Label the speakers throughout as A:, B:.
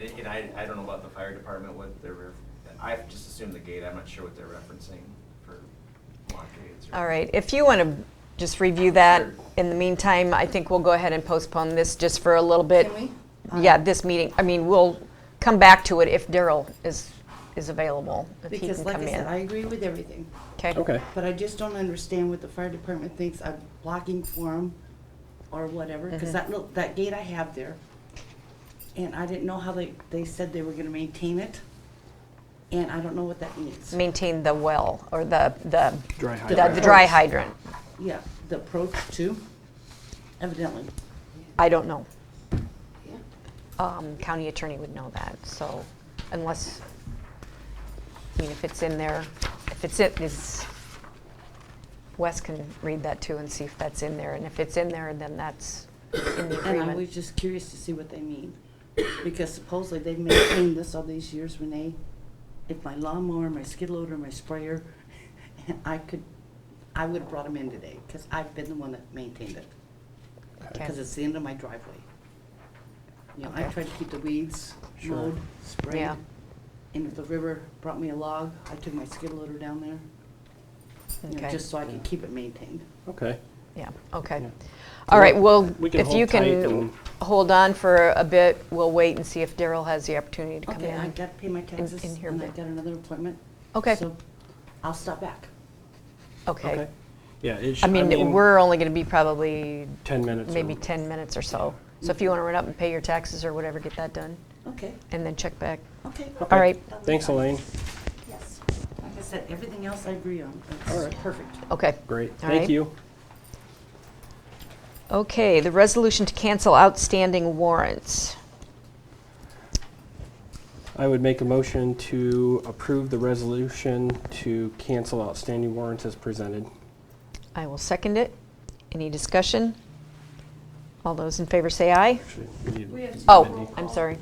A: And and I, I don't know about the fire department, what they're, ref- I just assumed the gate, I'm not sure what they're referencing for blockades. or-
B: All right, if you want to just review that, in the meantime, I think we'll go ahead and postpone this just for a little bit.
C: Can
B: we? Yeah, this meeting, I mean, we'll come back to it if Daryl is, is available, if he
C: Because
B: can
C: like
B: come
C: I said, I
B: in.
C: agree with everything,
B: Okay.
D: Okay.
C: but I just don't understand what the fire department thinks I'm blocking for 'em or whatever,
B: Mm-hmm.
C: because that little, that gate I have there, and I didn't know how they, they said they were gonna maintain it, and I don't know what that means.
B: Maintain the well, or the, the,
D: Dry
B: the-
D: hydrant.
B: the dry hydrant.
C: Yeah, the approach too, evidently.
B: I don't know. Um, County attorney would know that, so unless, I mean, if it's in there, if it's it, is, Wes can read that too and see if that's in there, and if it's in there, then that's in the
C: And I was
B: agreement.
C: just curious to see what they mean, because supposedly they've maintained this all these years, Renee. If my lawnmower, my skid loader, my sprayer, I could, I would've brought them in today, because I've been the one that maintained it,
B: Okay.
C: because it's the end of my driveway. You know, I
B: Okay.
C: tried to keep the weeds
D: Sure.
C: mowed, sprayed,
B: Yeah.
C: and if the river brought me a log, I took my skid loader down there, you know,
B: Okay.
C: just so I could keep it maintained.
D: Okay.
B: Yeah, okay.
D: Yeah.
B: All right, well,
D: We can
B: if you
D: hold tight
B: can
D: and-
B: hold on for a bit, we'll wait and see if Daryl has the opportunity to come
C: Okay, I
B: in.
C: gotta pay my taxes,
B: in here a
C: and I
B: bit.
C: got another appointment.
B: Okay.
C: So I'll stop back.
B: Okay.
D: Yeah, it should.
B: I mean, we're only gonna be probably
D: 10 minutes. or-
B: maybe 10 minutes or so. So if you want to run up and pay your taxes or whatever, get that done,
C: Okay,
B: and then check back.
C: okay.
D: Okay.
B: All right.
D: Thanks, Elaine.
C: Yes. Like I said, everything else I agree on.
D: All
C: It's
D: right.
C: perfect.
B: Okay.
D: Great.
B: All
D: Thank
B: right.
D: you.
B: Okay, the resolution to cancel outstanding warrants.
D: I would make a motion to approve the resolution to cancel outstanding warrants as presented.
B: I will second it. Any discussion? All those in favor say aye.
D: Actually, we need
E: We have to-
B: Oh,
D: Mindy.
B: I'm sorry.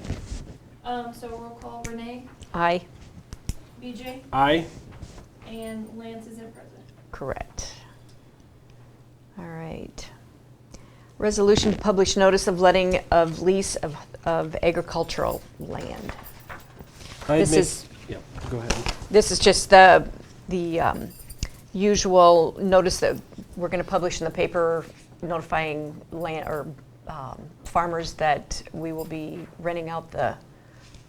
E: Um, so roll call Renee,
B: Aye,
E: BJ,
D: Aye.
E: and Lance isn't present.
B: correct. All right. Resolution to publish notice of letting of lease of of agricultural land.
D: I'd
B: This
D: make-
B: is-
D: Yeah, go ahead.
B: This is just the, the um, usual notice that we're going to publish in the paper notifying land, or um, farmers that we will be renting out the,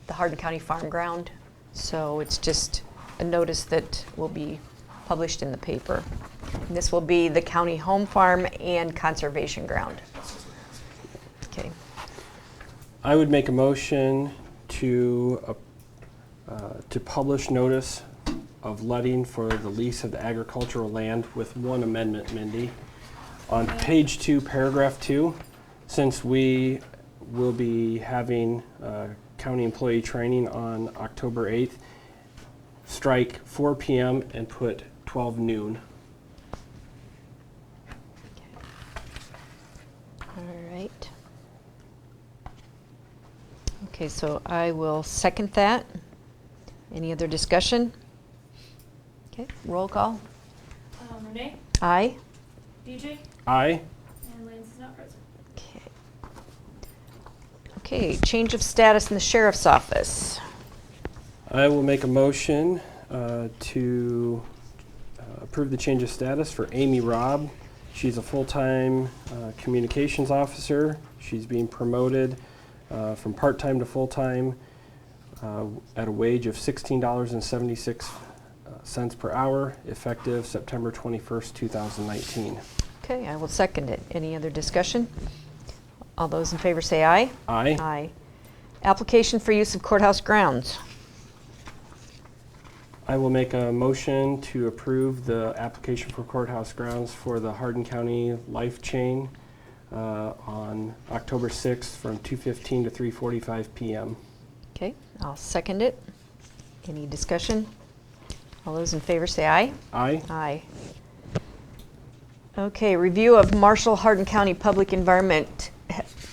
B: the Hardin County Farm Ground. So it's just a notice that will be published in the paper. And This will be the county home farm and conservation ground. Okay,
D: I would make a motion to, uh, uh, to publish notice of letting for the lease of the agricultural land with one amendment, Mindy. On page two, paragraph two, since we will be having uh, county employee training on October 8th, strike 4 PM and put 12 noon.
B: all right. Okay, so I will second that. Any other discussion? Okay, roll call.
E: Um, Renee,
B: Aye.
E: BJ,
D: Aye?
E: and Lance is not present.
B: Okay. Okay, change of status in the sheriff's office.
D: I will make a motion uh, to uh, approve the change of status for Amy Robb. She's a full-time uh, communications officer. She's being promoted uh, from part-time to full-time uh, at a wage of $16.76 uh, per hour, effective September 21st, 2019.
B: Okay, I will second it. Any other discussion? All those in favor say aye.
D: Aye.
B: Aye. Application for use of courthouse grounds.
D: I will make a motion to approve the application for courthouse grounds for the Hardin County Life Chain uh, on October 6th from 2:15 to 3:45 PM.
B: Okay, I'll second it. Any discussion? All those in favor say aye.
D: Aye?
B: Aye. Okay, review of Marshall Hardin County Public Environment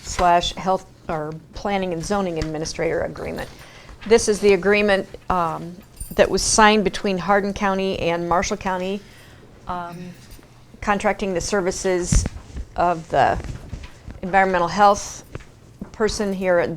B: slash Health, or Planning and Zoning Administrator Agreement. This is the agreement um, that was signed between Hardin County and Marshall County, um, contracting the services of the environmental health person here at